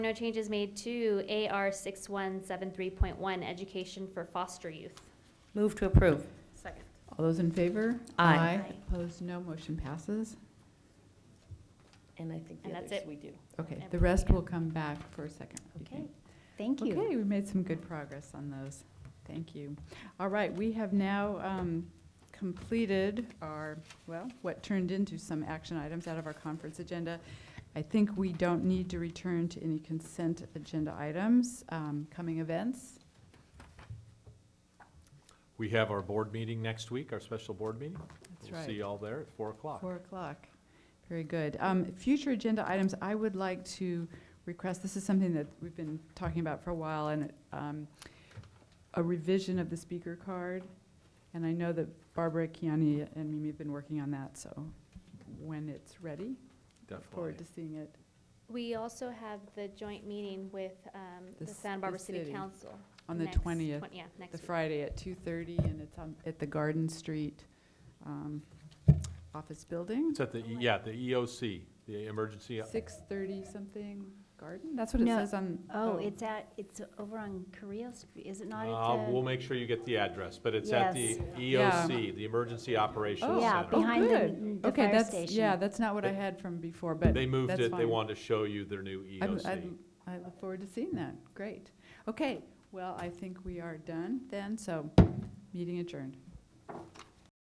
No changes made to AR 6173.1, education for foster youth. Move to approve. Second. All those in favor? Aye. Aye. Opposed, no. Motion passes. And I think the And that's others it. we do. Okay, And the rest yeah. will come back for a second. reading. Thank you. Okay, we made some good progress on those. Thank you. All right, we have now um, completed our, well, what turned into some action items out of our conference agenda. I think we don't need to return to any consent agenda items, Um, coming events. We have our board meeting next week, our special board meeting. That's We'll right. see you all there at four o'clock. Four o'clock. Very good. Um, Future agenda items, I would like to request, this is something that we've been talking about for a while, and um, a revision of the speaker card. And I know that Barbara, Kiani, and Mimi have been working on that, so when it's ready, look forward to Definitely. seeing it. We also have the joint meeting with um, The the s- Santa Barbara the City city. Council. On the next 20th, twen- Yeah, next The week. Friday at 2:30, and it's on, at the Garden Street um, Office Building. It's at the, E- yeah, the EOC, the Emergency, 6:30 something, Garden? That's what it No. says on. Oh, it's at, it's over on Korea Street, is it not Uh, at we'll the? make sure you get the address, but it's at the Yes. EOC, the Emergency Oh, Operations Yeah, Center. behind the, good. the Okay, fire that's Yeah, station. that's not what I They- had from before, but They moved that's it, they fine. wanted to show you their new E I'm- I'm- EOC. I look forward to seeing that. Great. Okay, well, I think we are done then, so meeting adjourned.